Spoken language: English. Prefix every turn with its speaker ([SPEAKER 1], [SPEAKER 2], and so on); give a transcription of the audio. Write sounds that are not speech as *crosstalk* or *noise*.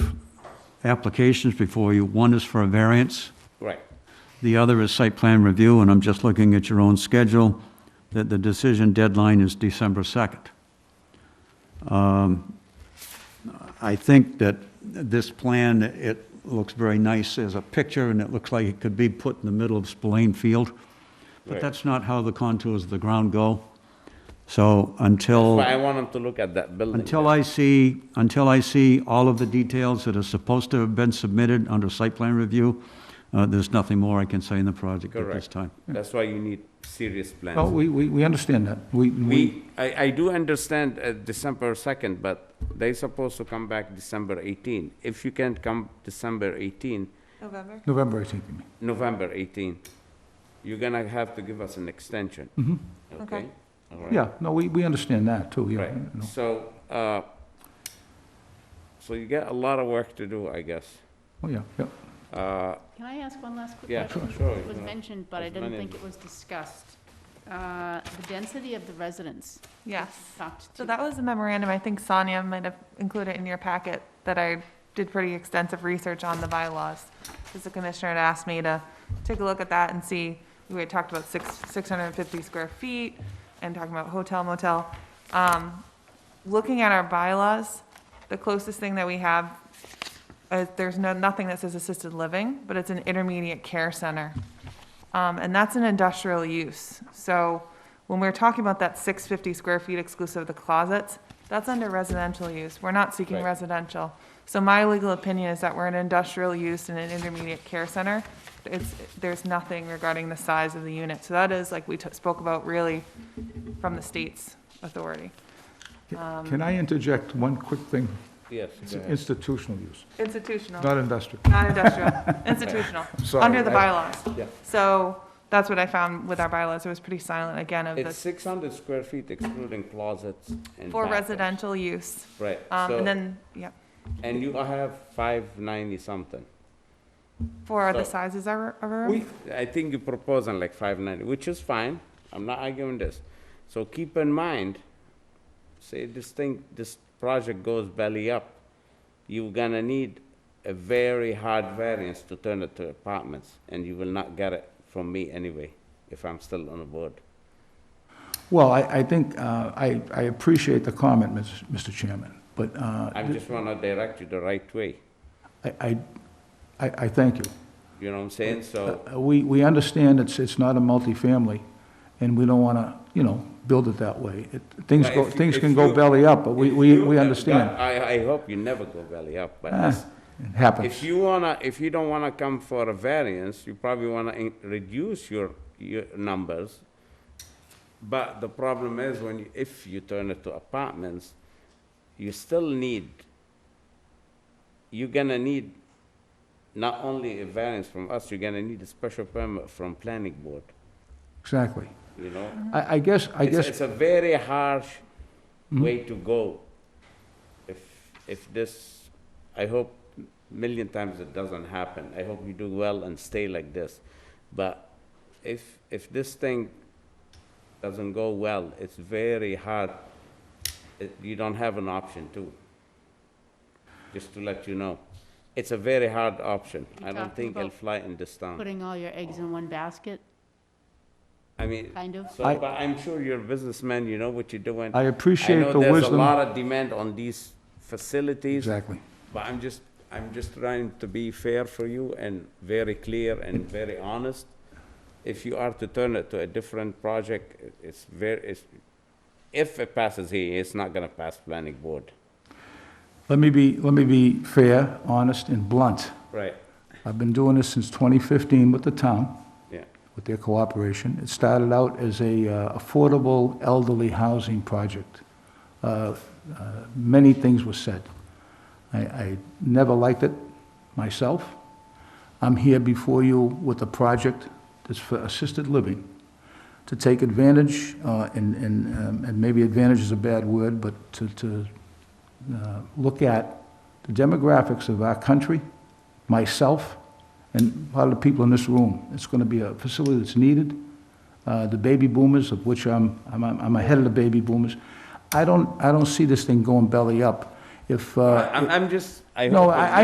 [SPEAKER 1] applications before you. One is for a variance,
[SPEAKER 2] Right.
[SPEAKER 1] the other is site plan review, and I'm just looking at your own schedule, that the decision deadline is December 2nd. Um, I think that this plan, it looks very nice as a picture, and it looks like it could be put in the middle of Spillane Field, but
[SPEAKER 2] Right.
[SPEAKER 1] that's not how the contours of the ground go. So
[SPEAKER 3] Oh.
[SPEAKER 1] until...
[SPEAKER 2] But I want them to look at that building.
[SPEAKER 1] Until I see, until I see all of the details that are supposed to have been submitted under site plan review, uh, there's nothing more I can say in the project at this
[SPEAKER 2] Correct.
[SPEAKER 1] time.
[SPEAKER 2] That's why you need serious
[SPEAKER 3] Oh,
[SPEAKER 2] plans.
[SPEAKER 3] we, we, we understand that. We, we,
[SPEAKER 2] We, I, I do understand uh, December 2nd, but they supposed to come back December 18. If you can't come December 18,
[SPEAKER 4] November?
[SPEAKER 3] November 18th, you mean.
[SPEAKER 2] November 18, you're gonna have to give us an extension. Okay?
[SPEAKER 4] Okay.
[SPEAKER 2] All right.
[SPEAKER 3] Mm-hmm. Yeah, no, we, we understand that too, yeah.
[SPEAKER 2] Right,
[SPEAKER 3] you know.
[SPEAKER 2] so, uh, so you got a lot of work to do, I guess.
[SPEAKER 3] Oh, yeah, yeah.
[SPEAKER 2] Uh,
[SPEAKER 5] Can I ask one last quick
[SPEAKER 2] Yeah,
[SPEAKER 5] question?
[SPEAKER 2] sure,
[SPEAKER 5] It
[SPEAKER 2] you
[SPEAKER 5] was
[SPEAKER 2] know,
[SPEAKER 5] mentioned, but I
[SPEAKER 2] as
[SPEAKER 5] didn't
[SPEAKER 2] many-
[SPEAKER 5] think it was discussed. Uh, The density of the residents
[SPEAKER 4] Yes.
[SPEAKER 5] talked
[SPEAKER 4] So
[SPEAKER 5] to.
[SPEAKER 4] that was a memorandum, I think Sonia might have included in your packet, that I did pretty extensive research on the bylaws. Because the commissioner had asked me to take a look at that and see, we had talked about six, six hundred and fifty square feet, and talking about hotel motel. Um, looking at our bylaws, the closest thing that we have is, Uh, there's no, nothing that says assisted living, but it's an intermediate care center. Um, and that's an industrial use. So when we're talking about that six fifty square feet exclusive of the closets, that's under residential use. We're not seeking
[SPEAKER 2] Right.
[SPEAKER 4] residential. So my legal opinion is that we're an industrial use in an intermediate care center. It's, there's nothing regarding the size of the unit. So that is like we t- spoke about really from the state's authority.
[SPEAKER 3] Can I interject one quick thing?
[SPEAKER 2] Yes.
[SPEAKER 3] It's
[SPEAKER 2] go ahead.
[SPEAKER 3] institutional use,
[SPEAKER 4] Institutional.
[SPEAKER 3] not industrial.
[SPEAKER 2] *laughs*
[SPEAKER 4] Not industrial, institutional,
[SPEAKER 3] Sorry,
[SPEAKER 4] under the
[SPEAKER 3] I-
[SPEAKER 4] bylaws.
[SPEAKER 3] yeah.
[SPEAKER 4] So that's what I found with our bylaws. It was pretty silent again of
[SPEAKER 2] It's
[SPEAKER 4] the,
[SPEAKER 2] six hundred square feet excluding closets and.
[SPEAKER 4] for
[SPEAKER 2] bathrooms.
[SPEAKER 4] residential use.
[SPEAKER 2] Right,
[SPEAKER 4] Um, and
[SPEAKER 2] so,
[SPEAKER 4] then, yeah,
[SPEAKER 2] and you have five ninety something.
[SPEAKER 4] for other
[SPEAKER 2] So-
[SPEAKER 4] sizes of our, of our
[SPEAKER 2] We,
[SPEAKER 4] room.
[SPEAKER 2] I think you propose on like five ninety, which is fine, I'm not arguing this. So keep in mind, say this thing, this project goes belly up, you're gonna need a very hard variance to turn it to apartments, and you will not get it from me anyway, if I'm still on the board.
[SPEAKER 3] Well, I, I think, uh, I, I appreciate the comment, Ms- Mr. Chairman, but uh,
[SPEAKER 2] I'm just wanna direct you the right way,
[SPEAKER 3] I, I, I I thank you.
[SPEAKER 2] you know what I'm saying, so.
[SPEAKER 3] Uh, We, we understand it's, it's not a multifamily, and we don't want to, you know, build it that way. It- Things
[SPEAKER 2] But
[SPEAKER 3] go,
[SPEAKER 2] if you-
[SPEAKER 3] things
[SPEAKER 2] if
[SPEAKER 3] can go
[SPEAKER 2] you-
[SPEAKER 3] belly up, but we,
[SPEAKER 2] If
[SPEAKER 3] we
[SPEAKER 2] you-
[SPEAKER 3] we
[SPEAKER 2] that-
[SPEAKER 3] understand.
[SPEAKER 2] that- I, I hope you never go belly up, but
[SPEAKER 3] Ah,
[SPEAKER 2] this-
[SPEAKER 3] It happens.
[SPEAKER 2] if you wanna, if you don't wanna come for a variance, you probably wanna in- reduce your, your numbers. But the problem is when, you- if you turn it to apartments, you still need, you're gonna need not only a variance from us, you're gonna need a special permit from planning board,
[SPEAKER 3] Exactly.
[SPEAKER 2] you know?
[SPEAKER 3] I, I guess, I
[SPEAKER 2] It's,
[SPEAKER 3] guess, Hmm?
[SPEAKER 2] it's a very harsh way to go. If, if this, I hope million times it doesn't happen. I hope you do well and stay like this. But if, if this thing doesn't go well, it's very hard. It- You don't have an option too. Just to let you know. It's a very hard option.
[SPEAKER 5] You're
[SPEAKER 2] I don't
[SPEAKER 5] talking
[SPEAKER 2] think it'll
[SPEAKER 5] about
[SPEAKER 2] fly in this town.
[SPEAKER 5] Putting all your eggs in one basket,
[SPEAKER 2] I mean,
[SPEAKER 5] kind of?
[SPEAKER 2] so,
[SPEAKER 3] I-
[SPEAKER 2] but I'm sure you're a businessman, you know what you're doing.
[SPEAKER 3] I appreciate the
[SPEAKER 2] I know there's a
[SPEAKER 3] wisdom.
[SPEAKER 2] lot of demand on these facilities,
[SPEAKER 3] exactly.
[SPEAKER 2] but I'm just, I'm just trying to be fair for you and very clear and very honest. If you are to turn it to a different project, it- it's very, it's, if it passes here, it's not gonna pass planning board.
[SPEAKER 3] Let me be, let me be fair, honest, and blunt.
[SPEAKER 2] Right,
[SPEAKER 3] I've been doing this since 2015 with the town,
[SPEAKER 2] yeah,
[SPEAKER 3] with their cooperation. It started out as a uh, affordable elderly housing project. Uh, uh, Many things were said. I, I never liked it myself. I'm here before you with a project that's for assisted living, to take advantage, uh, and, and, um, and maybe advantage is a bad word, but to, to uh, look at the demographics of our country, myself, and a lot of the people in this room. It's going to be a facility that's needed. Uh, The baby boomers, of which I'm, I'm, I'm ahead of the baby boomers. I don't, I don't see this thing going belly up. If, uh,
[SPEAKER 2] I'm, I'm just, I hope.
[SPEAKER 3] no,
[SPEAKER 2] it's
[SPEAKER 3] I,
[SPEAKER 2] not-
[SPEAKER 3] I